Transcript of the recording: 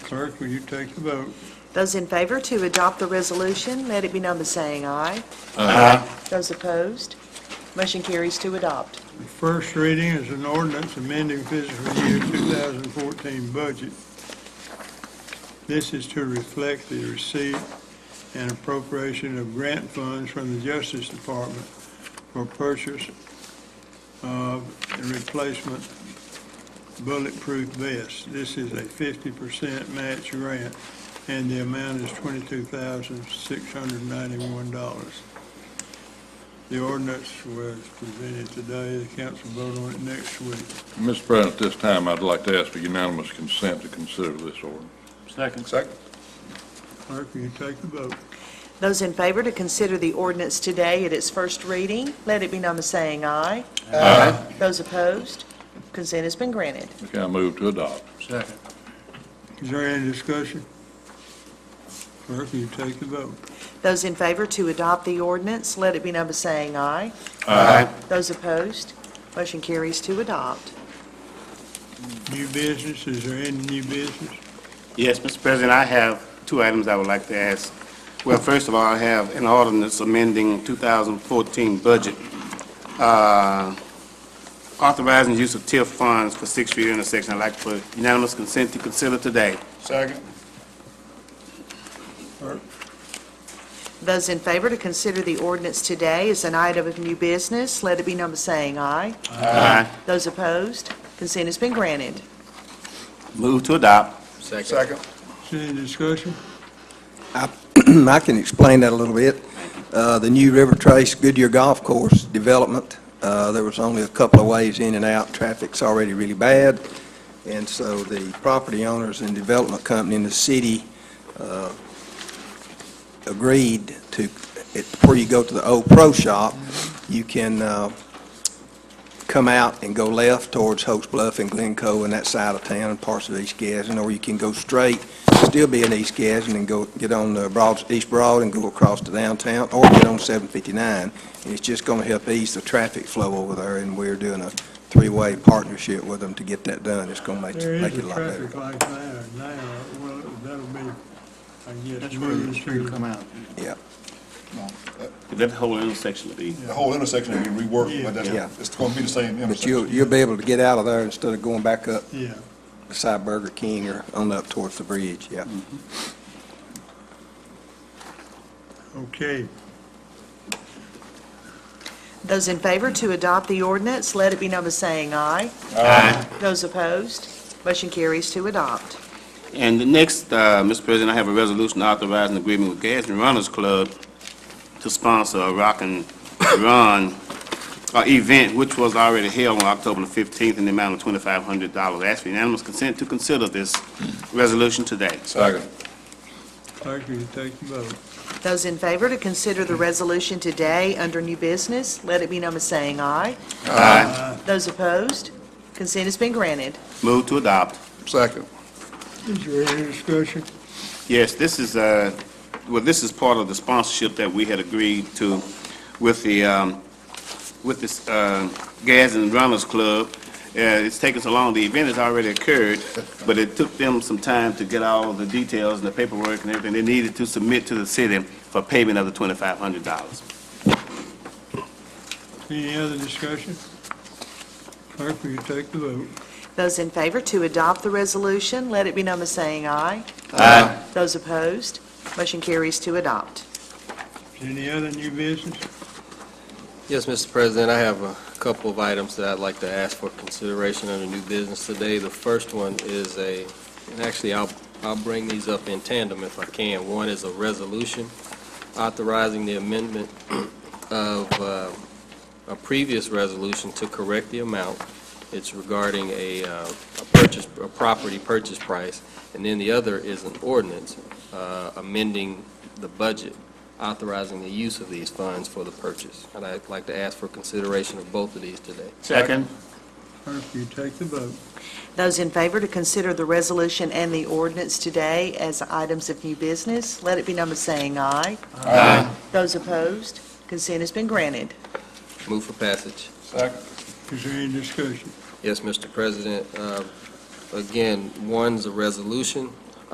Clerk, will you take the vote? Those in favor to adopt the resolution, let it be known by saying aye. Those opposed, motion carries to adopt. The first reading is an ordinance amending fiscal year 2014 budget. This is to reflect the receipt and appropriation of grant funds from the Justice Department for purchase of a replacement bulletproof vest. This is a 50% match grant, and the amount is $22,691. The ordinance was presented today, the council vote on it next week. Mr. President, at this time, I'd like to ask for unanimous consent to consider this ordinance. Second. Second. Clerk, will you take the vote? Those in favor to consider the ordinance today at its first reading, let it be known by saying aye. Aye. Those opposed, consent has been granted. Okay, I move to adopt. Second. Is there any discussion? Clerk, will you take the vote? Those in favor to adopt the ordinance, let it be known by saying aye. Aye. Those opposed, motion carries to adopt. New business, is there any new business? Yes, Mr. President, I have two items I would like to ask. Well, first of all, I have an ordinance amending 2014 budget, uh, authorizing use of TIF funds for Sixth Street intersection. I'd like for unanimous consent to consider today. Second. Those in favor to consider the ordinance today as an item of new business, let it be known by saying aye. Aye. Those opposed, consent has been granted. Move to adopt. Second. Is there any discussion? I can explain that a little bit. Uh, The new River Trace Goodyear Golf Course development, uh, there was only a couple of ways in and out. Traffic's already really bad, and so the property owners and development company in the city uh, agreed to, it- before you go to the old pro shop, you can uh, come out and go left towards Hoax Bluff and Glencoe and that side of town and parts of East Gadsden, or you can go straight still be in East Gadsden and go, get on the Broad, East Broad and go across to downtown, or get on 759. And it's just going to help ease the traffic flow over there, and we're doing a three-way partnership with them to get that done. It's going to make, There is make a it a lot better. traffic light there now, well, that'll be, I guess. That's where the street come out. That whole intersection will be. The whole intersection will be reworked, but Yeah. that's, it's gonna be the same But you'll, intersection. you'll be able to get out of there instead of going back up Yeah. beside Burger King or on up towards the bridge, yeah. Okay, Those in favor to adopt the ordinance, let it be known by saying aye. Aye. Those opposed, motion carries to adopt. And the next, uh, Mr. President, I have a resolution authorizing agreement with Gadsden Runners Club to sponsor a rock and run uh, event, which was already held on October the 15th in the amount of $2,500. Ask for unanimous consent to consider this resolution today. Second. clerk, will you take the vote? Those in favor to consider the resolution today under new business, let it be known by saying aye. Aye. Those opposed, consent has been granted. Move to adopt. Second. Is there any discussion? Yes, this is, uh, well, this is part of the sponsorship that we had agreed to with the, um, with this uh, Gadsden Runners Club. Uh, It's taken so long, the event has already occurred, but it took them some time to get all the details and the paperwork and everything they needed to submit to the city for payment of the $2,500. Any other discussion? Clerk, will you take the vote? Those in favor to adopt the resolution, let it be known by saying aye. Aye. Those opposed, motion carries to adopt. Any other new business? Yes, Mr. President, I have a couple of items that I'd like to ask for consideration under new business today. The first one is a, and actually, I'll, I'll bring these up in tandem if I can. One is a resolution authorizing the amendment of uh, a previous resolution to correct the amount. It's regarding a uh, a purchase, a property purchase price, and then the other is an ordinance uh, amending the budget authorizing the use of these funds for the purchase. And I'd like to ask for consideration of both of these today. Second. Clerk, will you take the vote? Those in favor to consider the resolution and the ordinance today as items of new business, let it be known by saying aye. Aye. Those opposed, consent has been granted. Move for passage. Is there any discussion? Yes, Mr. President. Uh, Again, Um, one's a resolution